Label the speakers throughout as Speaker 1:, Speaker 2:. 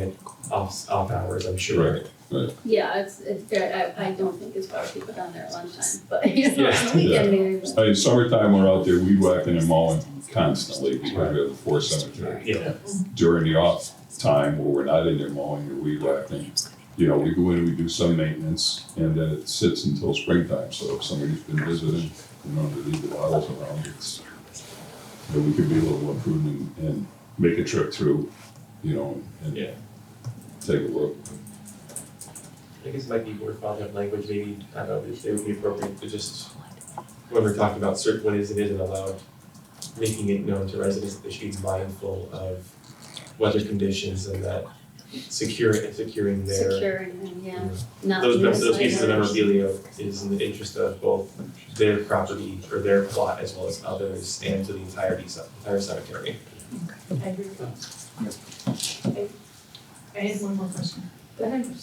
Speaker 1: and off off hours, I'm sure.
Speaker 2: Right.
Speaker 3: Yeah, it's, it's very, I, I don't think it's probably people down there at lunchtime, but you know,
Speaker 1: Yeah.
Speaker 3: on the weekend maybe. but-
Speaker 2: I mean, summertime, we're out there weed whacking and mowing constantly because we have a force cemetery.
Speaker 1: Yeah.
Speaker 2: During the off time where we're not in there mowing or weed whacking, you know, we go in, we do some maintenance and then it sits until springtime. So if somebody's been visiting, you know, to leave the bottles around, it's, you know, we could be a little more prudent and, and make a trip through, you know, and
Speaker 1: Yeah.
Speaker 2: take a look.
Speaker 1: I guess it might be worthwhile to have language, maybe, I don't know, if it would be appropriate to just, when we're talking about certain, what is and isn't allowed, making it known to residents that they should be mindful of weather conditions and that securing, securing their.
Speaker 3: Securing them,
Speaker 1: you
Speaker 3: yeah,
Speaker 1: know,
Speaker 3: not.
Speaker 1: Those, mem- those
Speaker 3: misleading.
Speaker 1: pieces of memorabilia is in the interest of both their property or their plot as well as others and to the entirety, of- entire cemetery.
Speaker 4: I agree with that. I I have one more question.
Speaker 3: Go ahead.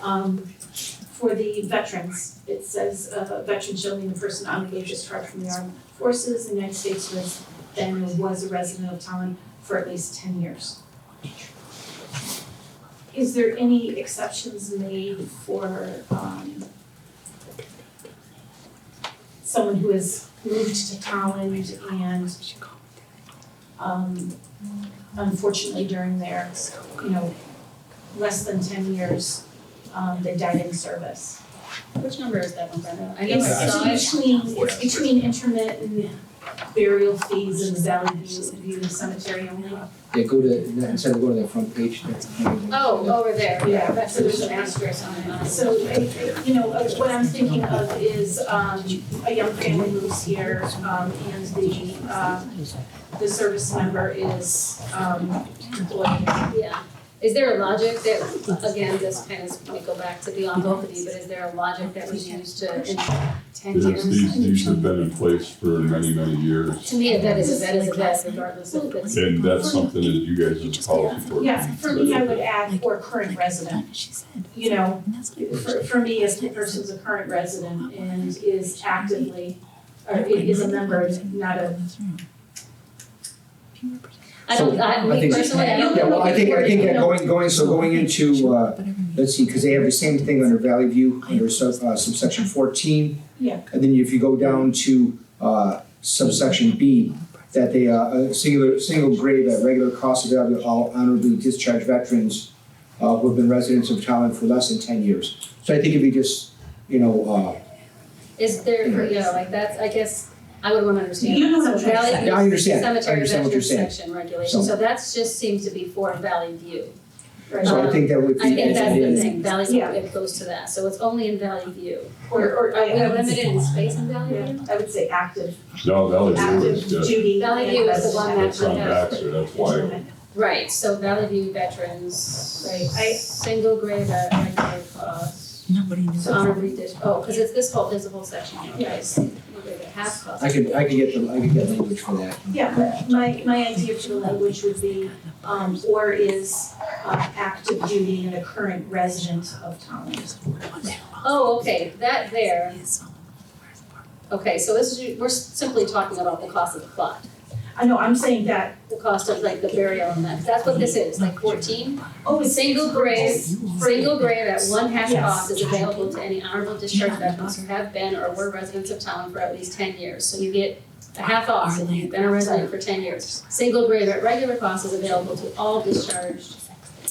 Speaker 4: Um, for the veterans, it says, uh, veteran shall be the person obligated to discharge from the armed forces in the United States who has been or was a resident of Tallinn for at least ten years. Is there any exceptions made for, um, someone who has moved to Tallinn and, um, unfortunately during their, you know, less than ten years, um, they died in service.
Speaker 3: Which number is that one, Brenda? I know I
Speaker 4: It's,
Speaker 3: saw it.
Speaker 4: it's between, it's between intermittent burial fees and the Valley View, View Cemetery only.
Speaker 5: Yeah, go to, instead of going to the front page.
Speaker 3: Oh, over there, yeah,
Speaker 4: Yeah.
Speaker 3: that's, there's an asterisk on it.
Speaker 4: So, I- I- you know, uh, what I'm thinking of is, um, a young family moves here, um, and the, um, the service member is, um, employed.
Speaker 3: Yeah, is there a logic that, again, this kind of, might go back to the envelope, but is there a logic that was used to, in ten
Speaker 2: Because these,
Speaker 3: years?
Speaker 2: these have been in place for many, many years.
Speaker 3: To me, a vet is a vet is a vet regardless of if it's.
Speaker 2: And that's something that you guys have called for.
Speaker 4: Yeah, for me, I would add, or current resident,
Speaker 6: She said,
Speaker 4: you know,
Speaker 6: and that's what
Speaker 4: for, for me, as the person's a current resident and is actively, or i- is a member, not a,
Speaker 3: I don't, I,
Speaker 5: So, I
Speaker 3: me
Speaker 5: think-
Speaker 3: personally, I don't.
Speaker 5: Yeah, well, I think, I think that going, going, so going into, uh,
Speaker 6: whatever.
Speaker 5: let's see, because they have the same thing under Valley View, under sub, uh, subsection fourteen.
Speaker 4: Yeah.
Speaker 5: And then if you go down to, uh, subsection B, that they, uh, a singular, single grade at regular cost of value, all honorably discharged veterans, uh, who have been residents of Tallinn for less than ten years. So I think if you just, you know, uh,
Speaker 3: Is there, yeah, like that's, I guess, I would wanna understand.
Speaker 4: Mm-hmm. You know what I'm
Speaker 3: So
Speaker 4: trying to
Speaker 3: Valley
Speaker 4: say.
Speaker 3: View
Speaker 5: I understand. I
Speaker 3: Cemetery
Speaker 5: understand what you're
Speaker 3: Veterans
Speaker 5: saying.
Speaker 3: Section regulation, so
Speaker 5: So-
Speaker 3: that's just seems to be for Valley View.
Speaker 5: uh, so I
Speaker 3: Um,
Speaker 5: think that would be.
Speaker 3: I think that's the
Speaker 5: engineered.
Speaker 3: thing, Valley View,
Speaker 4: Yeah.
Speaker 3: it goes to that, so it's only in Valley View.
Speaker 4: or, or
Speaker 3: Are
Speaker 4: I,
Speaker 3: we
Speaker 4: I would
Speaker 3: limited
Speaker 4: say,
Speaker 3: in space in Valley
Speaker 4: yeah,
Speaker 3: View?
Speaker 4: I would say active,
Speaker 2: No,
Speaker 5: Oh,
Speaker 2: Valley View
Speaker 4: active
Speaker 2: is just,
Speaker 4: duty.
Speaker 3: Valley
Speaker 4: and
Speaker 3: View is the
Speaker 4: resident.
Speaker 3: one that-
Speaker 5: um,
Speaker 2: it's on Baxter, that's why.
Speaker 3: Right, so Valley View Veterans.
Speaker 4: Right, I-
Speaker 3: Single grade at regular cost,
Speaker 6: Nobody knew.
Speaker 4: um,
Speaker 3: honorary dish, oh, cause it's this whole, there's a whole section, here, right?
Speaker 4: Yes.
Speaker 3: Half cost.
Speaker 5: I could, I could get the, I could get language for that.
Speaker 4: Yeah, but my, my idea for the language would be, um, or is, uh, active duty and a current resident of Tallinn.
Speaker 3: Oh, okay, that there, okay, so this is, we're simply talking about the cost of the plot.
Speaker 4: I know, I'm saying that,
Speaker 3: the cost of like the burial and that, that's what this is, like fourteen.
Speaker 4: oh, it's.
Speaker 3: Single grave, single grave at one half
Speaker 4: Yes.
Speaker 3: cost is available to any honorable discharge veterans who have been or were residents of Tallinn for at least ten years, so you get a half off if you've been a resident for ten years. Single grave at regular cost is available to all discharged,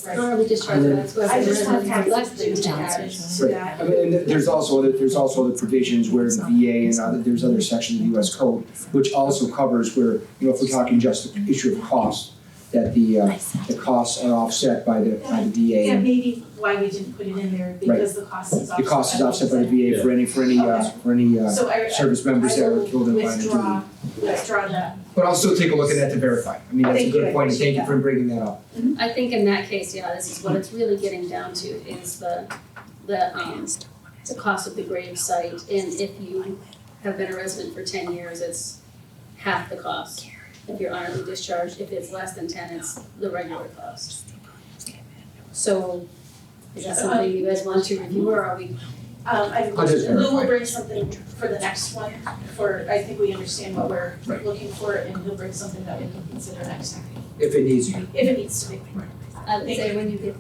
Speaker 4: Right.
Speaker 3: honorable discharged veterans who have
Speaker 4: I
Speaker 3: been
Speaker 4: just want
Speaker 3: residents
Speaker 4: to
Speaker 3: for
Speaker 4: have
Speaker 3: less
Speaker 4: to
Speaker 3: than
Speaker 4: do
Speaker 3: ten
Speaker 4: that,
Speaker 3: years.
Speaker 4: so that.
Speaker 5: I mean, and there's also, other there's also the provisions where the VA and other, there's other sections of the US code, which also covers where, you know, if we're talking just the issue of cost, that the, uh, the costs are offset by the, by the VA.
Speaker 4: Yeah,
Speaker 5: and
Speaker 4: maybe why we didn't put it in there, because the cost is offset.
Speaker 5: The cost is
Speaker 4: by
Speaker 5: offset by the VA for any, for any, uh, for any, uh,
Speaker 4: So I, I
Speaker 5: service members that were killed in line of duty.
Speaker 4: withdraw, withdraw that.
Speaker 5: But I'll still take a look at that to verify. I mean, that's a
Speaker 4: Thank you, I
Speaker 5: good point, and thank
Speaker 4: appreciate
Speaker 5: you for bringing that up.
Speaker 3: I think in that case, yeah, this is what it's really getting down to is the, the, um, the cost of the grave site. And if you have been a resident for ten years, it's half the cost. If you're honorably discharged, if it's less than ten, it's the regular cost. So is that something you guys want to review or are we,
Speaker 4: Um, I,
Speaker 5: I'll just
Speaker 4: Lou will
Speaker 5: verify.
Speaker 4: bring something for the next one, for, I think we understand what we're
Speaker 5: Right.
Speaker 4: looking for, and he'll bring something that we can consider next time,
Speaker 5: If it needs to be.
Speaker 4: if it needs to be.
Speaker 3: I would say when you get